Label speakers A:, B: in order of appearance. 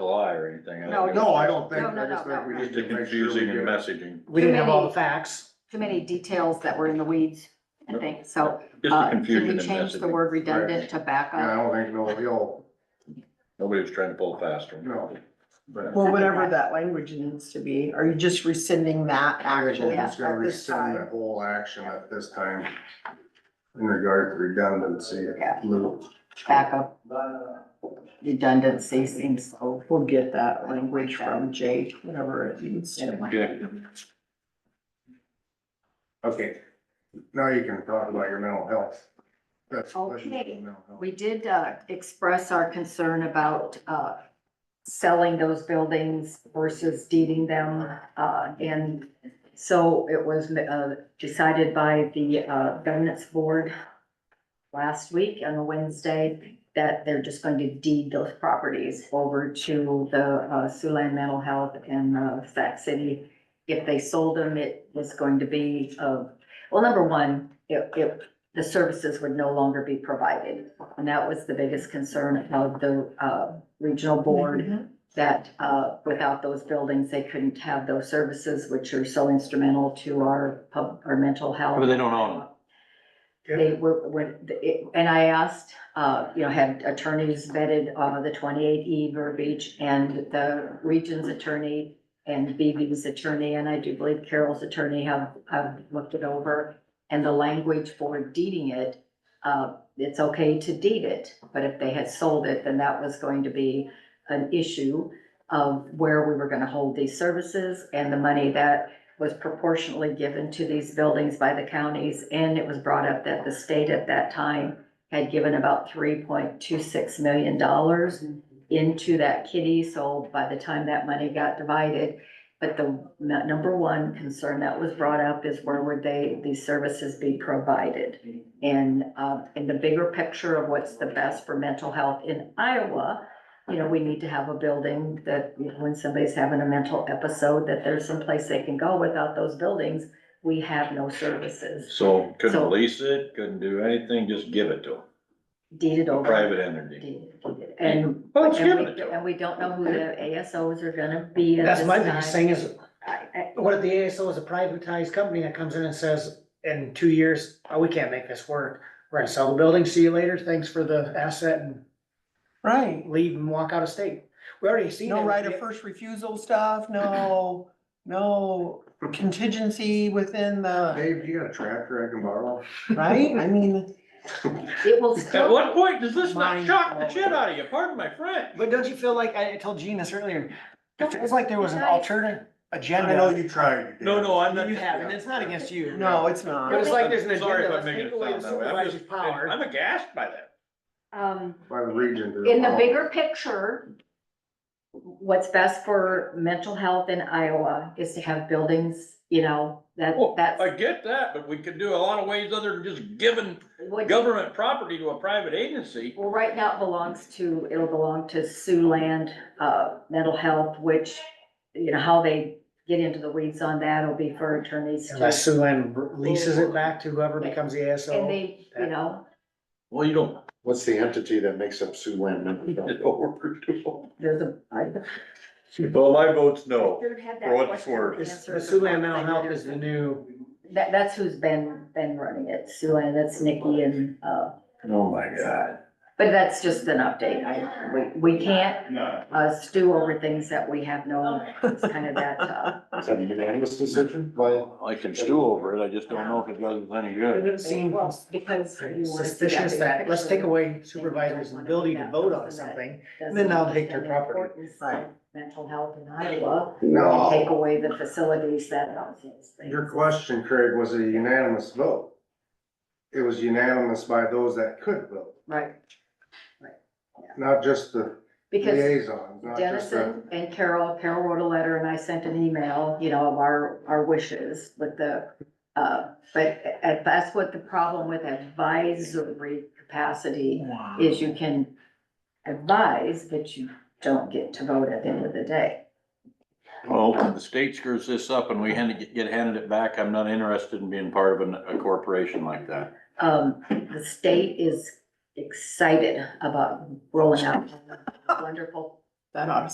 A: lie or anything.
B: No,
A: don't
C: No, I don't think,
B: No, no,
C: I just
B: no,
C: think we
B: no.
A: Just
C: need
A: the
C: to make sure we
A: confusing and
C: get.
A: messaging,
D: We didn't have all the facts.
B: too many details that were in the weeds and things, so.
A: just the
B: uh,
A: confusion
B: Can
A: and
B: we change the
A: messaging.
B: word redundant to
C: Yeah, I
B: backup?
C: don't think no, he'll,
A: Nobody was trying to pull fast one.
C: no, but
E: Well, whatever that language needs to be, are you just rescinding that
C: we're
E: action
C: just gonna
E: at this
C: rescind the
E: time?
C: whole action at this time. In regard to redundancy,
B: Yeah.
C: Lou.
B: Backup. Redundancy seems so.
E: We'll get that language from Jake, whatever it needs to.
A: Okay.
C: Okay, now you can talk about your mental health. That's. that's
B: Okay.
C: mental health.
B: We did uh, express our concern about uh, selling those buildings versus deeding them. uh, And so it was uh, decided by the uh, governance board last week on a Wednesday that they're just going to deed those properties over to the uh, Siouxland Mental Health and uh, Sac City. If they sold them, it was going to be, uh, well, number one, it, it the services would no longer be provided. And that was the biggest concern of the uh, regional board, that uh, without those buildings, they couldn't have those services, which are so instrumental to our pub, our mental health.
A: But they don't own them.
B: They were, when, it- and I asked, uh, you know, had attorneys vetted uh, the twenty-eight E verbiage and the region's attorney and BB's attorney, and I do believe Carol's attorney have, have looked it over and the language for deeding it, uh, it's okay to deed it, but if they had sold it, then that was going to be an issue of where we were gonna hold these services and the money that was proportionally given to these buildings by the counties. And it was brought up that the state at that time had given about three point two six million dollars into that kitty, so by the time that money got divided, but the n- number one concern that was brought up is where would they, these services be provided? And, uh, in the bigger picture of what's the best for mental health in Iowa, you know, we need to have a building that you know, when somebody's having a mental episode, that there's some place they can go without those buildings. We have no services
A: So
B: So-
A: couldn't lease it, couldn't do anything, just give it to
B: deeded
A: them,
B: over.
A: private entity.
B: Deeded, deeded. And,
D: Oh,
A: Well, it's
B: and
A: giving it
B: we,
A: to
B: and
A: them.
B: we don't know who the ASOs are gonna be at
D: That's
B: this
D: my
B: time.
D: biggest thing is,
B: I- I-
D: what if the ASO is a privatized company that comes in and says, in two years, oh, we can't make this work. We're gonna sell the building, see you later, thanks for the asset and
F: Right,
D: leave and walk out of state. We already seen.
F: no
D: it.
F: right of first refusal stuff, no, no contingency within the,
C: Dave, do you got a tractor I can borrow?
F: right? I mean,
B: It will
A: At
B: still.
A: what point does this not
F: Mind
A: shock the shit
F: blowing.
A: out of you? Pardon my French.
D: But don't you feel like, I I told Gene this earlier, it feels like there was an
B: Nice.
D: alternate
C: I know
D: agenda.
C: you tried. you
A: No,
C: did.
A: no, I'm not.
D: You have, and it's not against you.
F: no, it's not.
D: It was like there's an
A: Sorry if
D: agenda,
A: I'm
D: let's
A: making
D: take
A: it
D: away the
A: sound that way. I'm
D: supervisor's
A: just-
D: power.
A: I'm aghast by that.
B: Um,
C: By the region. to
B: in the
C: allow-
B: bigger picture, what's best for mental health in Iowa is to have buildings, you know, that,
D: Oh,
A: Well,
B: that's.
A: I get that, but we could do a lot of ways other than just giving
B: what-
A: government property to a private agency.
B: Well, right now it belongs to, it'll belong to Siouxland, uh, mental health, which, you know, how they get into the weeds on that will be for attorneys
D: Unless
B: to.
D: Sulan leases it back to whoever becomes the
B: And
D: ASO.
B: they, you know,
A: Well, you don't.
G: What's the entity that makes up Siouxland Mental Health?
B: there's a. I-
A: Well, my vote's no.
B: Should have had that
A: For what it's
B: question
A: worth.
D: It's,
B: answered.
D: Sulan Mental Health is the new.
B: That, that's who's been, been running it, Siouxland, that's Nikki and, uh,
A: Oh, my God.
B: But that's just an update. I, we, we can't uh, stew over things that we have no, it's kind of that, uh,
G: Is that a unanimous decision?
A: Well, I can stew over it, I just don't know if it does us any good.
D: It seemed
B: because. you wanna see
D: suspicious
B: big
D: that, let's
B: picture.
D: take away supervisors' ability to vote on something. and then they'll take their property.
B: Importance of Mental health in Iowa, and
C: No.
B: take away the facilities that help things.
C: Your question, Craig, was a unanimous vote. It was unanimous by those that could vote,
B: Right,
C: not just the
B: because
C: liaisons, not just the.
B: Dennison and Carol, Carol wrote a letter and I sent an email, you know, of our, our wishes with the, uh, but uh, that's what the problem with advisory capacity is you can advise, but you don't get to vote at the end of the day.
A: Well, if the state screws this up and we hand it- get handed it back, I'm not interested in being part of an- a corporation like that.
B: Um, the state is excited about rolling out wonderful
F: That ought to